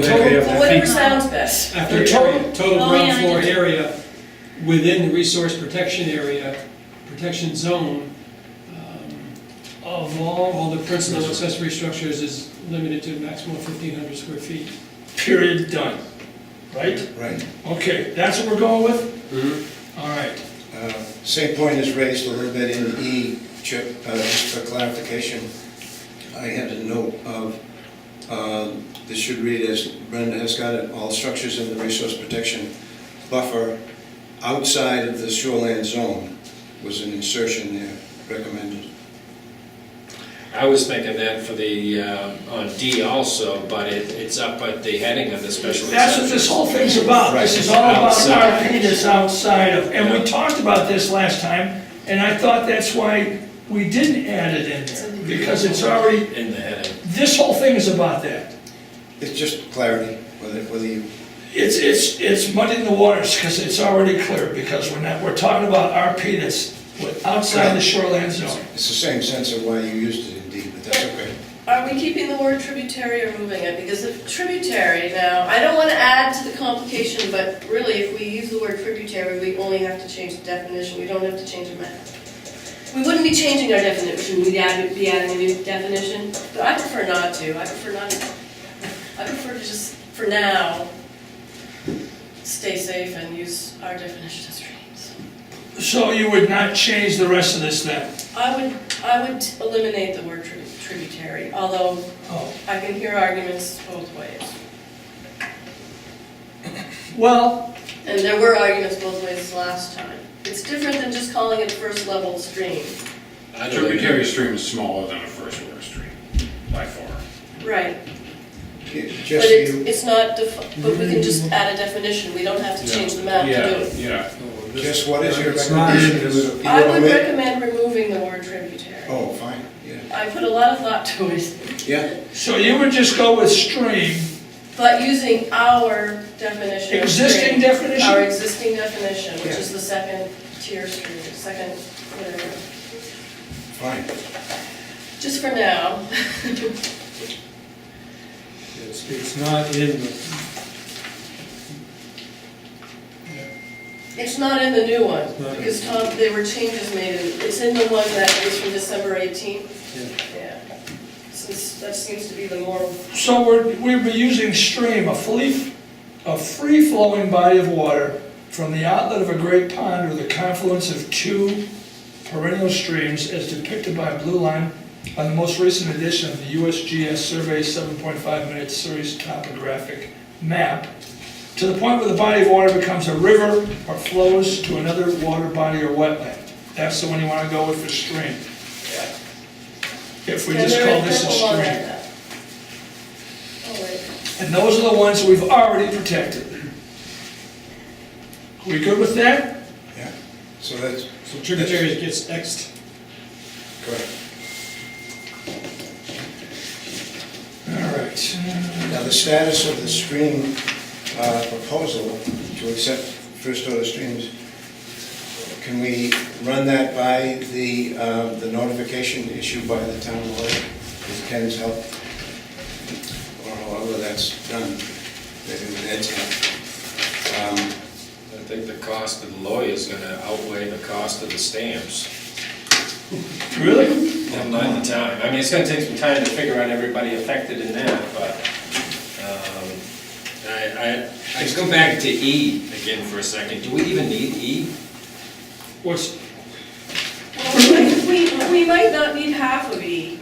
Total- After Whatever feet- sounds best. After Total- area, total Oh, ground yeah, I floor know. area within the resource protection area, protection zone, um, of all, all the principal accessory structures is limited to maximum fifteen hundred square feet. period, done, right? Right. Okay, that's what we're going with? All right, Uh, Same point is raised a little bit in E, Chip, uh, just for clarification. I had a note of, um, this should read as Brenda has got it, all structures in the resource protection buffer outside of the shoreline zone was an insertion there recommended. I was thinking that for the, uh, on D also, but it, it's up at the heading of the special that's what this exception. whole thing's about, this is all about in our opinion, it's outside of, and we talked about this last time, and I thought that's why we didn't add it in there, because it's already, In the heading. this whole thing is about that. It's just clarity, whether, whether you, It's, it's, it's muddying the waters, because it's already clear, because we're not, we're talking about our peanuts with- outside the shoreline zone. it's the same sense of why you used it in D, but that's okay. Are we keeping the word tributary or moving it? Because if tributary now, I don't want to add to the complication, but really if we use the word tributary, we only have to change the definition, we don't have to change the map. We wouldn't be changing our definition, we'd add, be adding a new definition, but I prefer not to, I prefer not, I prefer to just, for now, stay safe and use our definition of streams. So you would not change the rest of this then? I would, I would eliminate the word tri- tributary, although Oh. I can hear arguments both ways. Well, And there were arguments both ways last time. It's different than just calling it first level stream. I don't know. Tributary stream is smaller than a first water stream, by far. Right. But Just it's, you, it's not, defi- but we can just add a definition, we don't have to change the map to do Yeah, it. yeah. just what is your It's not in recommendation? this- You I wanna would make- recommend removing the word tributary. Oh, fine, yeah, I put a lot of thought to it, yeah, so you would just go with stream, but using our definition of stream. existing Our definition? existing definition, which is the second tier stream, second, whatever. fine. Just for now. It's, it's not in the It's not in the new one, No. because Tom, there were changes made, in- it's in the one that is from December 18th. Yeah. Since that seems to be the more, So we're, we were using stream, a free, a free-flowing body of water from the outlet of a great pond or the confluence of two perennial streams as depicted by blue line on the most recent edition of the USGS Survey 7.5 Minute Series Topographic Map, to the point where the body of water becomes a river or flows to another water body or wetland. That's the one you want to go with for stream. If we Yeah, just there call is- this a there's a lot like stream. that. Oh, wait. And those are the ones we've already protected. We good with that? Yeah, so that's So tributaries gets Xed. correct. All right. Now, the status of the stream uh, proposal to accept first order streams, can we run that by the, uh, the notification issued by the town lawyer with Ken's help? Or however that's done, maybe with Ed's help. Um, I think the cost of the lawyer's gonna outweigh the cost of the stamps. Really? Never mind the time. I mean, it's gonna take some time to figure out everybody affected in that, but, um, I, I, I just go back to E again for a second. Do we even need E? What's, Well, Oh, We, we might not need half of E.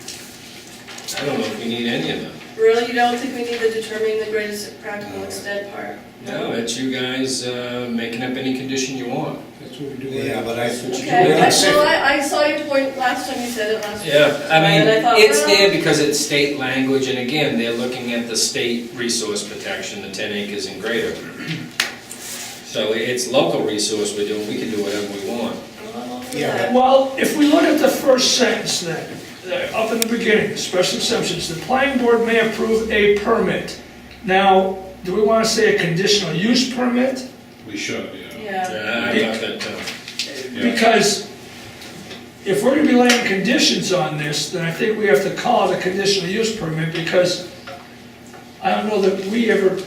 I don't know if we need any of them. Really, you don't think we need the determining the greatest practical extent part? No, it's you guys, uh, making up any condition you want. That's what we do. Yeah, but I- Okay, Yeah. I- well, I, I saw your point last time you said it last week. Yeah, I mean, And I thought, it's well- there because it's state language, and again, they're looking at the state resource protection, the ten acres and greater. So it's local resource we're doing, we can do whatever we want. Well, Yeah, but- well, if we look at the first sentence then, uh, up in the beginning, special exceptions, the planning board may approve a permit. Now, do we want to say a conditional use permit? We should, yeah. Uh, Yeah, I thought that, uh, Yeah. Because if we're gonna be laying conditions on this, then I think we have to call it a conditional use permit, because I don't know that we ever